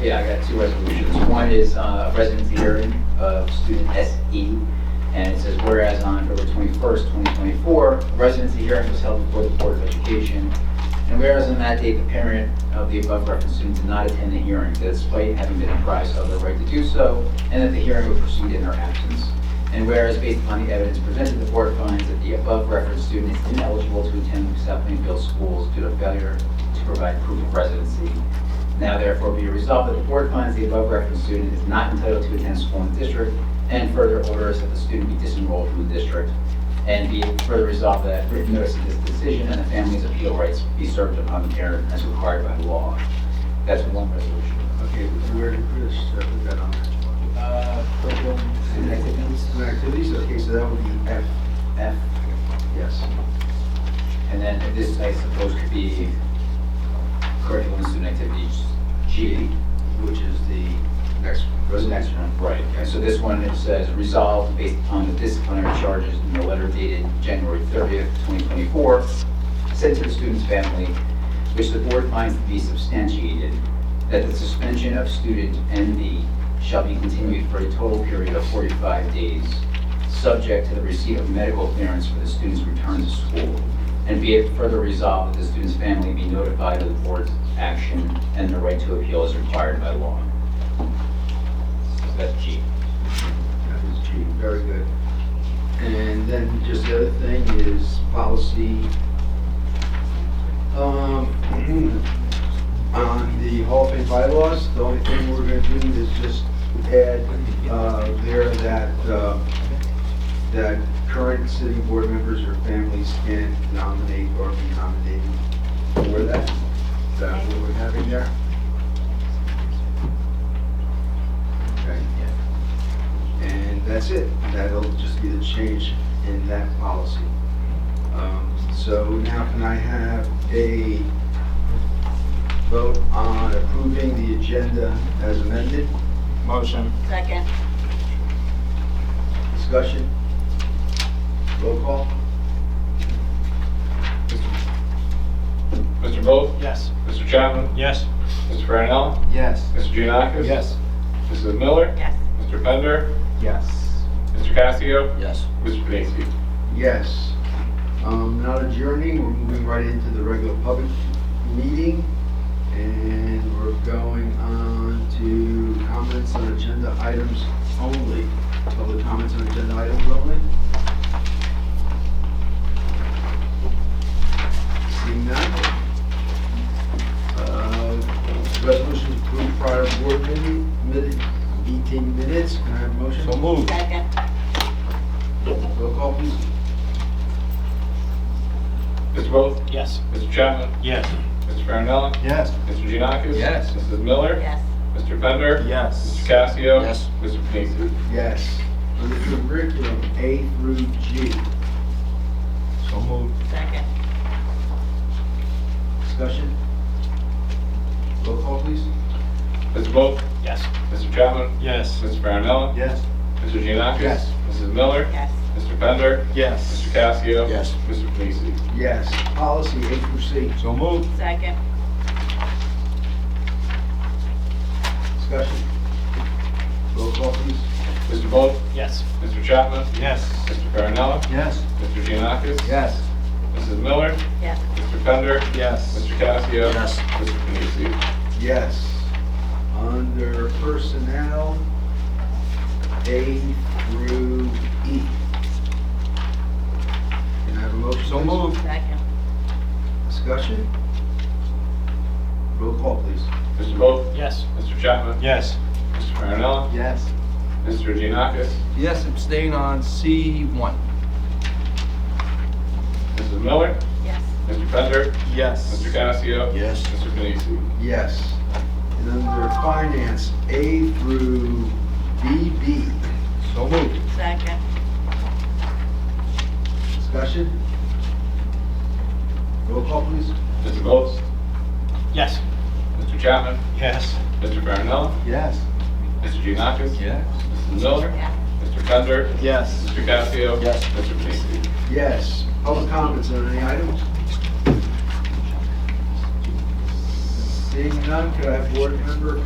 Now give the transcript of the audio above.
Yeah, I got two resolutions. One is uh, residency hearing of student SE, and it says, whereas on October 21st, 2024, residency hearing was held before the Board of Education, and whereas on that date, the parent of the above referenced student did not attend the hearing, despite having been apprised of their right to do so, and that the hearing would proceed in their absence. And whereas based upon the evidence presented, the board finds that the above referenced student is ineligible to attend South Plainfield schools due to failure to provide proof of residency. Now therefore be resolved that the board finds the above referenced student is not entitled to attend school in the district, and further orders that the student be disenrolled from the district. And be it further resolved that written notice of this decision and the family's appeal rights be served upon the parent as required by law. That's one resolution. Okay, where did Chris uh, put that on? Uh, curriculum and activities, Student activities, okay, so that would be F, F. yes. And then this, I suppose, could be curriculum and student activities G. Which is the next one. Goes next one. Right. And so this one, it says, resolved based upon the disciplinary charges in the letter dated January 30th, 2024, sent to the student's family, which the board finds to be substantiated, that the suspension of student NB shall be continued for a total period of 45 days, subject to the receipt of medical clearance for the student's return to school. And be it further resolved that the student's family be notified of the board's action and the right to appeal is required by law. So That's G. That is G, very good. And then just the other thing is policy. um, On the Hall of Fame bylaws, the only thing we're gonna do is just add uh, there that, uh, that current city board members or families can nominate or be nominated for that. Is that what we're having there? Okay. And that's it. That'll just be the change in that policy. Um, So now can I have a vote on approving the agenda as amended? Motion. Second. Discussion? Roll call? Mr. Vogt, Yes. Mr. Chapman, Yes. Mr. Brownell, Yes. Mr. Giannakis. Mrs. Miller, Yes. Mr. Bender, Yes. Mr. Casio, Yes. Mr. Pacey. Yes. Um, Not adjourning, we're moving right into the regular public meeting. And we're going on to comments on agenda items only. Public comments on agenda items only? Seeing none? Uh, Resolution to approve prior board meeting, minute- meeting minutes. Can I have a motion? So moved. Second. Roll call, please. Mr. Vogt, Yes. Mr. Chapman, Yes. Mr. Brownell, Yes. Mr. Giannakis. Yes. Mrs. Miller, Yes. Mr. Bender, Mr. Yes. Casio. Yes. Mr. Pacey. Yes. On the curriculum, A through G. So moved. Second. Discussion? Roll call, please. Mr. Vogt, Yes. Mr. Chapman, Yes. Mr. Brownell, Yes. Mr. Giannakis. Yes. Mrs. Miller, Yes. Mr. Bender, Yes. Mr. Casio. Yes. Mr. Pacey. Yes. Policy A through C. So moved. Second. Discussion? Roll call, please. Mr. Vogt, Yes. Mr. Chapman, Yes. Mr. Brownell, Yes. Mr. Giannakis. Yes. Mrs. Miller, Yes. Mr. Bender, Yes. Mr. Casio. Yes. Mr. Panisi. Yes. Under personnel, A through E. Can I have a motion? So please? moved. Second. Discussion? Roll call, please. Mr. Vogt, Yes. Mr. Chapman, Yes. Mr. Marinella, Yes. Mr. Giannakis, Yes, abstain on C one. Mrs. Miller, Yes. Mr. Bender, Yes. Mr. Casio. Yes. Mr. Panisi. Yes. And under finance, A through BB. So moved. Second. Discussion? Roll call, please. Mr. Vogt, Yes. Mr. Chapman, Yes. Mr. Marinella, Yes. Mr. Giannakis. Yes. Mrs. Miller, Yes. Mr. Bender, Yes. Mr. Casio. Yes. Mr. Panisi. Yes. Public comments on any items? Seeing none, could I have board member